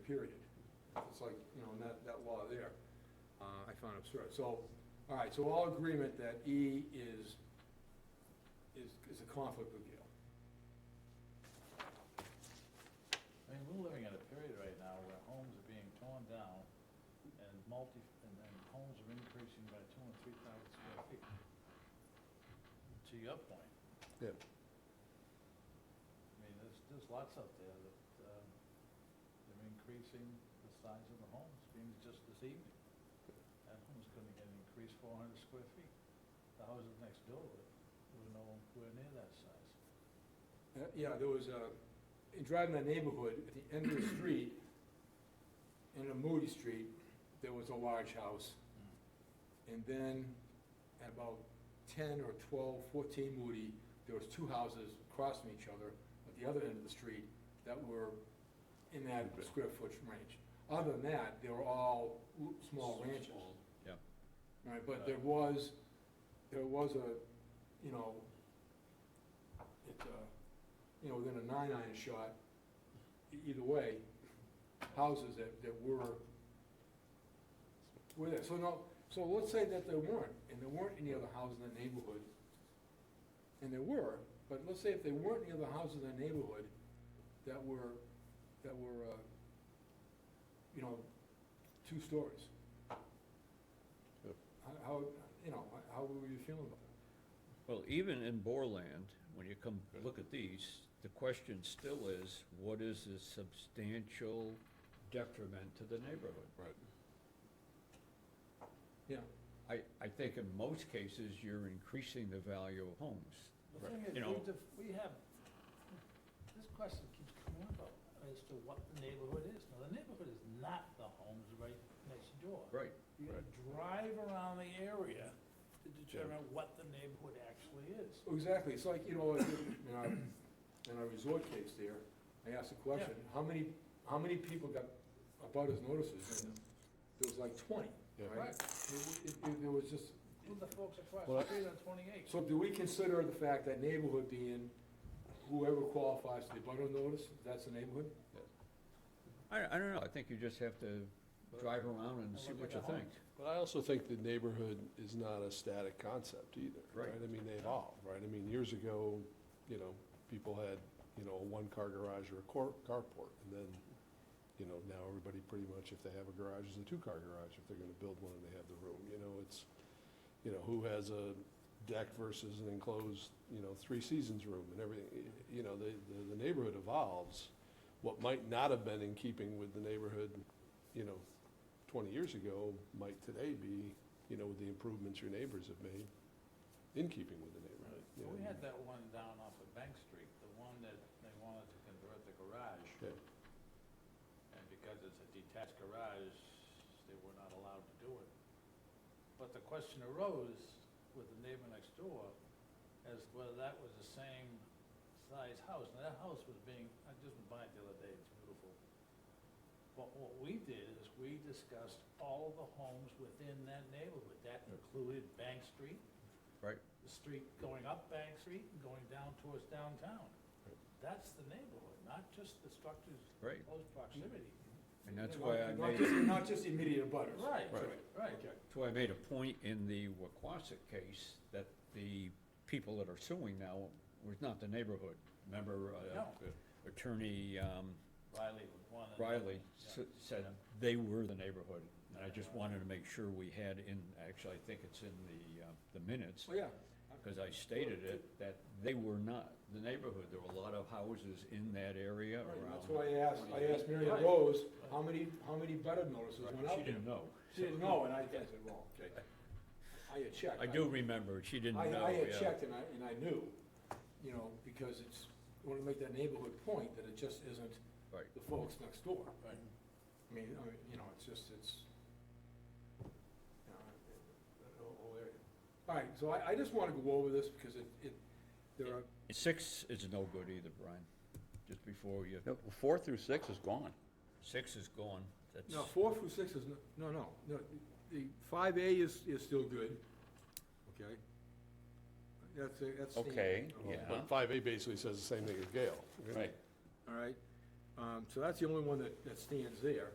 period. It's like, you know, in that, that law there, uh, I found absurd. So, all right, so all agreement that E is, is, is a conflict with Yale. I mean, we're living in a period right now where homes are being torn down and multi, and then homes are increasing by two and three thousand square feet. To your point, Yeah, I mean, there's, there's lots out there that, um, they're increasing the size of the homes, being just this evening. That home's gonna get increased four hundred square feet. The houses next door were, were nowhere near that size. Uh, Yeah, there was a, in driving that neighborhood, at the end of the street, in a Moody Street, there was a large house. And then at about ten or 12, 14 Moody, there was two houses across from each other at the other end of the street that were in that square foot range. Other than that, they were all l- small ranches. Yep. Right, but there was, there was a, you know, it, uh, you know, within a nine iron shot, e- either way, houses that, that were, were there. So no, so let's say that there weren't, and there weren't any other houses in the neighborhood, and there were, but let's say if there weren't any other houses in the neighborhood that were, that were, uh, you know, two stories. Yep. How- How, you know, how were you feeling about that? Well, even in Borland, when you come, look at these, the question still is, what is the substantial detriment to the neighborhood? right. Yeah, I, I think in most cases, you're increasing the value of homes. The thing is, we You know- def- we have, this question keeps coming up about as to what the neighborhood is. Now, the neighborhood is not the homes right next door. Right. You gotta drive around the area to determine what the neighborhood actually is. exactly, it's like, you know, in our, in our resort case there, I asked a question, how many, how many people got abutters notices? And There was like twenty, Yeah. right? It- It, it, there was just, Who the folks across Well, the street on twenty-eight? so do we consider the fact that neighborhood being whoever qualifies for the abutter notice, that's the neighborhood? I, I don't know, I think you just have to drive around and see look what at you the think. But I also think the neighborhood is not a static concept either, right? Right. I mean, they evolve, right? I mean, years ago, you know, people had, you know, a one-car garage or a cor- carport. And then, you know, now everybody pretty much, if they have a garage, is a two-car garage, if they're gonna build one and they have the room, you know, it's, you know, who has a deck versus an enclosed, you know, three seasons room and everything, Y- you know, the, the- the neighborhood evolves. What might not have been in keeping with the neighborhood, you know, twenty years ago might today be, you know, with the improvements your neighbors have made in keeping with the neighborhood. you We know. had that one down off of Bank Street, the one that they wanted to convert the garage. Okay, And because it's a detached garage, they were not allowed to do it. But the question arose with the neighbor next door as to whether that was the same size house. Now, that house was being, I just went by it the other day, it's beautiful. But what we did is we discussed all of the homes within that neighborhood. That included Bank Street, Right. the street going up Bank Street and going down towards downtown. Right. That's the neighborhood, not just the structures in Right. close proximity. And that's why I Not made, just- that's Not just immediate abutters. Right, right. Okay. why I made a point in the Waquasit case, that the people that are suing now was not the neighborhood. Remember, uh, No. attorney, um, Riley would want to. Riley s- said they were the neighborhood, and I just wanted to make sure we had in, actually, I think it's in the, uh, the minutes, Well, yeah, because I stated it, that they were not the neighborhood, there were a lot of houses in that area Right, around. that's why I asked, I asked Mary Ann Right. Rose, how many, how many butter notices went out? She didn't know. She didn't know, and I I said, well, okay. I had checked. I do remember, she didn't know, I, I had yeah. checked and I, and I knew, you know, because it's, I wanna make that neighborhood point that it just isn't Right. the folks next door. Right. I mean, I mean, you know, it's just, it's, you know, it- it- the whole- whole area. All right, so I, I just wanna go over this because it, it, there are, Six is no good either, Brian, just before you, No, Four through six is gone. six is gone, that's, no, four through six is, no- no, no, no, the five A is, is still good, okay? That's, a- that's. the- Okay, yeah. But five A basically says the same thing as Gail. Right. All right, uh, Um, so that's the only one that, that stands there.